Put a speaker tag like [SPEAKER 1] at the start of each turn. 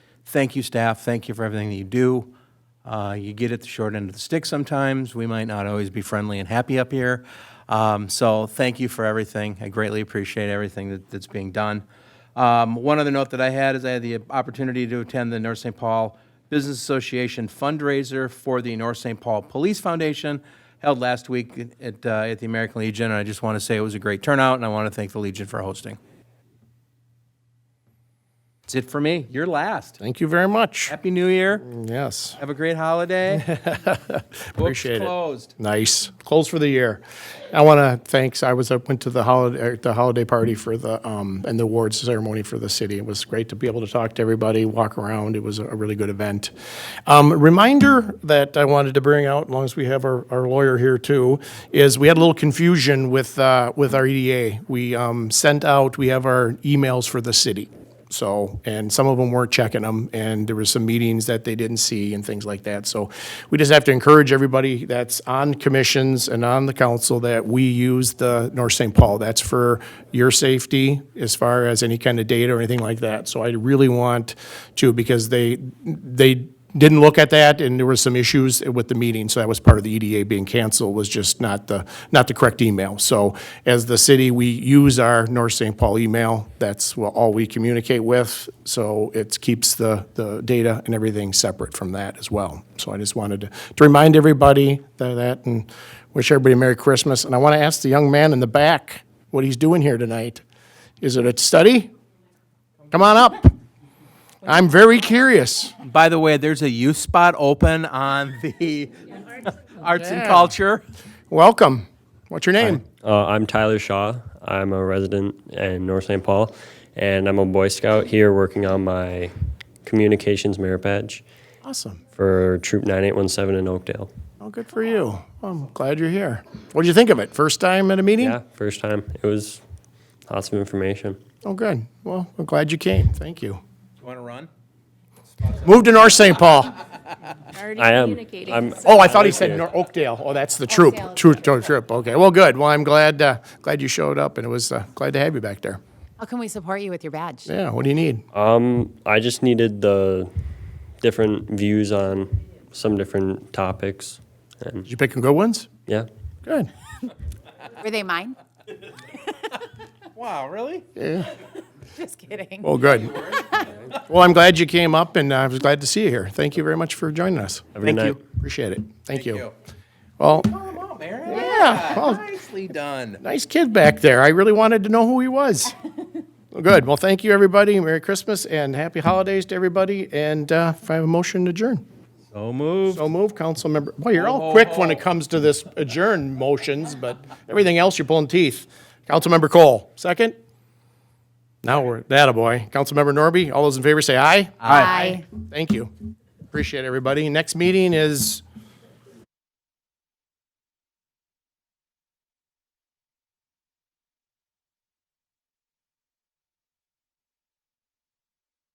[SPEAKER 1] thank you, staff. Thank you for everything that you do. Uh, You get at the short end of the stick sometimes. We might not always be friendly and happy up here. Um, So thank you for everything. I greatly appreciate everything that- that's being done. Um, One other note that I had is I had the opportunity to attend the North St. Paul Business Association fundraiser for the North St. Paul Police Foundation held last week at, uh, at the American Legion. And I just want to say it was a great turnout, and I want to thank the Legion for hosting. That's it for me. You're last.
[SPEAKER 2] Thank you very much.
[SPEAKER 1] Happy New Year.
[SPEAKER 2] Yes.
[SPEAKER 1] Have a great holiday.
[SPEAKER 2] Appreciate it.
[SPEAKER 1] Books closed.
[SPEAKER 2] Nice. Close for the year. I want to thanks. I was I went to the holiday the holiday party for the um and the awards ceremony for the city. It was great to be able to talk to everybody, walk around. It was a really good event. Um, reminder that I wanted to bring out, as long as we have our, our lawyer here too, is we had a little confusion with uh, with our EDA. We um, sent out. We have our emails for the city. So, and some of them weren't checking them, and there was some meetings that they didn't see and things like that. So we just have to encourage everybody that's on commissions and on the council that we use the North St. Paul. That's for your safety as far as any kind of data or anything like that. So I really want to, because they, they didn't look at that, and there were some issues with the meeting, so that was part of the EDA being canceled, was just not the, not the correct email. So as the city, we use our North St. Paul email, that's wha- all we communicate with, so it keeps the, the data and everything separate from that as well. So I just wanted to, to remind everybody tha- that, and wish everybody a Merry Christmas. And I want to ask the young man in the back what he's doing here tonight. Is it a study? Come on up. I'm very curious.
[SPEAKER 1] By the way, there's a youth spot open on the Arts and Culture.
[SPEAKER 2] Welcome. What's your name?
[SPEAKER 3] Uh, I'm Tyler Shaw. I'm a resident in North St. Paul, and I'm a Boy Scout here working on my communications merit badge
[SPEAKER 2] Awesome.
[SPEAKER 3] for Troop 9817 in Oakdale.
[SPEAKER 2] Oh, good for you. I'm glad you're here. What did you think of it? First time at a meeting?
[SPEAKER 3] Yeah, first time. It was lots of information.
[SPEAKER 2] Oh, good. Well, I'm glad you came. Thank you.
[SPEAKER 1] You want to run?
[SPEAKER 2] Move to North St. Paul.
[SPEAKER 4] Already
[SPEAKER 3] I am.
[SPEAKER 4] communicating.
[SPEAKER 3] I'm
[SPEAKER 2] Oh, I thought he
[SPEAKER 3] like
[SPEAKER 2] said
[SPEAKER 3] it.
[SPEAKER 2] Nor- Oakdale. Oh, that's the troop.
[SPEAKER 4] Oakdale.
[SPEAKER 2] Troop, troop, troop. Okay. Well, good. Well, I'm glad, uh, glad you showed up and it was, uh, glad to have you back there.
[SPEAKER 4] How can we support you with your badge?
[SPEAKER 2] Yeah. What do you need?
[SPEAKER 3] Uh, Um, I just needed the different views on some different topics, and
[SPEAKER 2] Did you pick some good ones?
[SPEAKER 3] yeah,
[SPEAKER 2] Good.
[SPEAKER 4] Were they mine?
[SPEAKER 1] Wow, really?
[SPEAKER 4] Just kidding.
[SPEAKER 2] Well, good. Well, I'm glad you came up and uh, I was glad to see you here. Thank you very much for joining us.
[SPEAKER 3] a good
[SPEAKER 1] Thank you.
[SPEAKER 3] night.
[SPEAKER 2] Appreciate it. Thank
[SPEAKER 1] you.
[SPEAKER 2] you. Well,
[SPEAKER 1] Come on, Aaron.
[SPEAKER 2] yeah. Well,
[SPEAKER 1] Nicely done.
[SPEAKER 2] Nice kid back there. I really wanted to know who he was. Well, Good. Well, thank you, everybody. Merry Christmas and happy holidays to everybody. And uh, if I have a motion to adjourn.
[SPEAKER 1] So moved.
[SPEAKER 2] So move, council member. Well, you're
[SPEAKER 1] Ho, ho,
[SPEAKER 2] all quick when
[SPEAKER 1] ho.
[SPEAKER 2] it comes to this adjourn motions, but everything else, you're pulling teeth. Councilmember Cole, second? Now we're, that a boy. Councilmember Norby, all those in favor say aye.
[SPEAKER 4] Bye.
[SPEAKER 2] Thank you. Appreciate everybody. Next meeting is